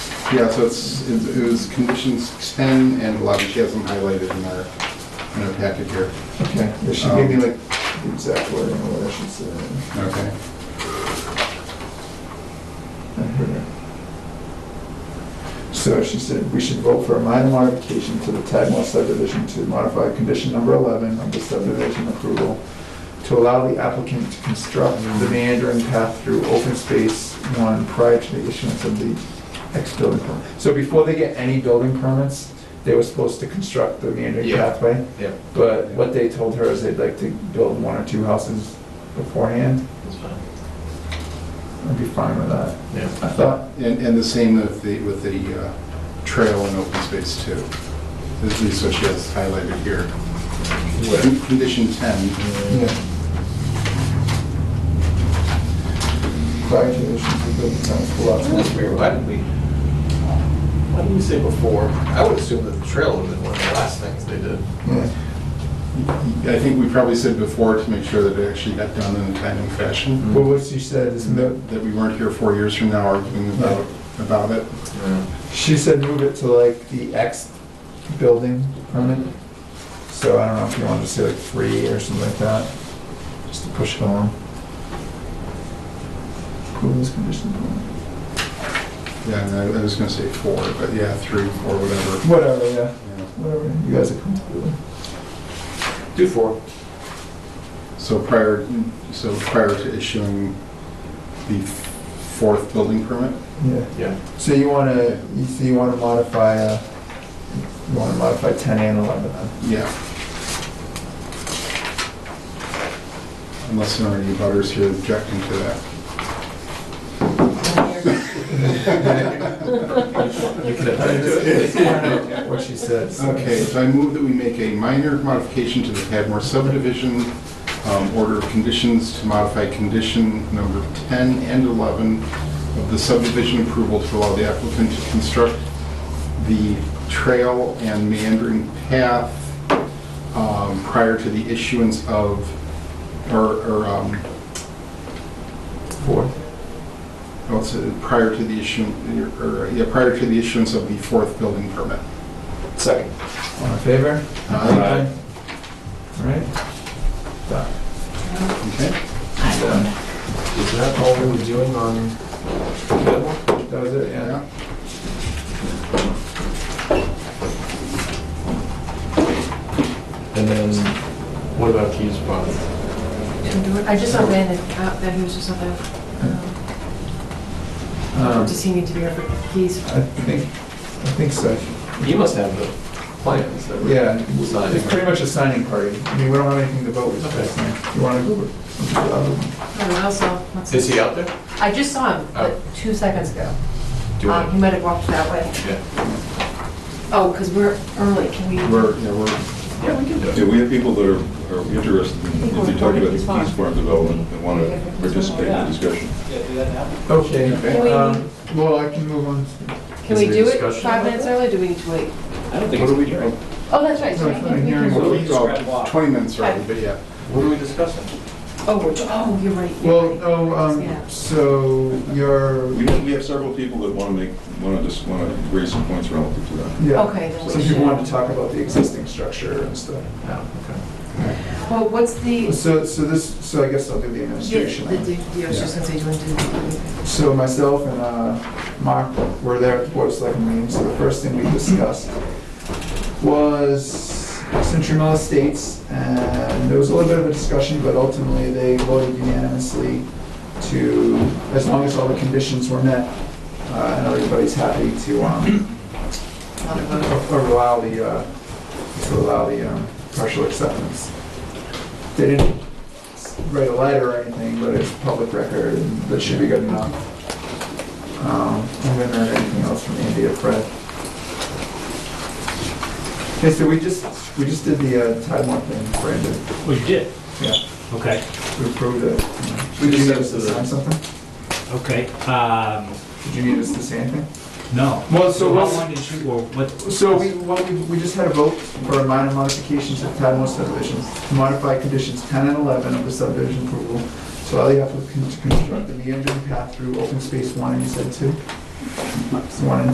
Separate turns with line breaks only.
Yeah, so it's, it was conditions 10 and 11, she has them highlighted in our, in our packet here.
Okay, yeah, she gave me like the exact wording of what I should say.
Okay.
I heard her. So she said, we should vote for a minor modification to the Tagmore subdivision to modify condition number 11 of the subdivision approval to allow the applicant to construct the meandering path through open space one prior to the issuance of the ex-building permit. So before they get any building permits, they were supposed to construct the meandering
Yeah.
pathway?
Yeah.
But what they told her is they'd like to build one or two houses beforehand.
That's fine.
I'd be fine with that.
Yeah.
I thought,
And, and the same with the, with the uh, trail and open space too. This is what she has highlighted here.
Where?
Condition 10.
yeah. Prior to the issuance of building permits for lots.
That's weird, why did we, why did we say before? I would assume that the trail would have been one of the last things they did. Hmm.
Yeah.
I think we probably said before to make sure that it actually got done in a timely fashion,
But what she said is, mo-
that that we weren't here four years from now arguing about, about it.
she said move it to like the X building permit. So I don't know if you want to say like three or something like that, just to push it along. Approve this condition.
Yeah, and I I was gonna say four, but yeah, three, four, whatever.
Whatever, yeah,
Yeah.
whatever, you guys are comfortable with.
Do four.
So prior, so prior to issuing the fourth building permit?
Yeah.
Yeah.
So you want to, so you want to modify, uh, you want to modify 10 and 11 then?
Yeah. Unless there are any butters here objecting to that.
You could
I
have
just-
it.
it's kind of What she said. so-
Okay, so I move that we make a minor modification to the Padmore subdivision um, order of conditions to modify condition number 10 and 11 of the subdivision approval to allow the applicant to construct the trail and meandering path um, prior to the issuance of, or, or, um,
Four.
oh, it's, uh, prior to the issue, or, uh, yeah, prior to the issuance of the fourth building permit.
Second.
All in favor?
Aye.
All right. Done.
Okay?
Done.
Is that all we were doing on?
That was it, yeah.
Yeah.
And then, what about Keys Pond?
I just saw Ben and Cap, that he was just on the, um,
Um,
does he need to be here for keys?
I think, I think so.
He must have the plans that were.
Yeah,
Signing.
it's pretty much a signing party. I mean, we don't have anything to vote with at this point. You want to go with the other one?
I don't know, also, what's-
Is he out there?
I just saw him like two seconds ago.
Do you
Um, He
want
might have walked that way.
to- Yeah.
Oh, because we're early, can we?
We're, yeah, we're
Yeah, we can do
Yeah,
it.
we have people that are, are interested, in- if you talk about the Keys Farm development, and want to participate in the discussion.
Can we-
Okay, um, well, I can move on.
Can
Is
we
there
do it
discussion
five
about
minutes early, or do we need to wait?
I don't think it's a hearing.
Oh, that's right.
No,
sorry.
it's not a hearing.
Well,
So
we
we describe
go
why.
Twenty minutes early, but yeah.
What are we discussing?
Oh, we're, oh, you're right. you're
Well,
right.
no,
Yeah.
um, so you're,
We, we have several people that want to make, want to just, want to raise some points relative to that.
yeah.
Okay, then
Some
we
people
should-
wanted to talk about the existing structure and stuff.
Yeah, Oh, okay.
Well, what's the, yeah,
So, so this, so I guess I'll do the
the,
administration.
D- yeah, I was just gonna say, do you want to do? the-
So myself and uh, Mark were there at the Board of Selectmen meeting, so the first thing we discussed was Century Mill Estates, and there was a little bit of a discussion, but ultimately they voted unanimously to, as long as all the conditions were met, uh, and everybody's happy to, um,
Not a vote.
or allow the, uh, to allow the um, partial acceptance. They didn't write a letter or anything, but it's public record, and that should be good enough. Um, And then there anything else from Andy or Fred? Okay, so we just, we just did the uh, Taiwan thing, Brandon.
We Oh, did,
Yeah.
okay,
We approved it. Did you need us to sign something?
okay. Um,
Did you need us to say anything?
no.
Well, so
How
what's-
long did you, or what?
So we, what we, we just had a vote for a minor modification to the Tadmore subdivision, to modify conditions ten and eleven of the subdivision approval, to allow the applicant to construct the meandering path through open space one, and you said two? One and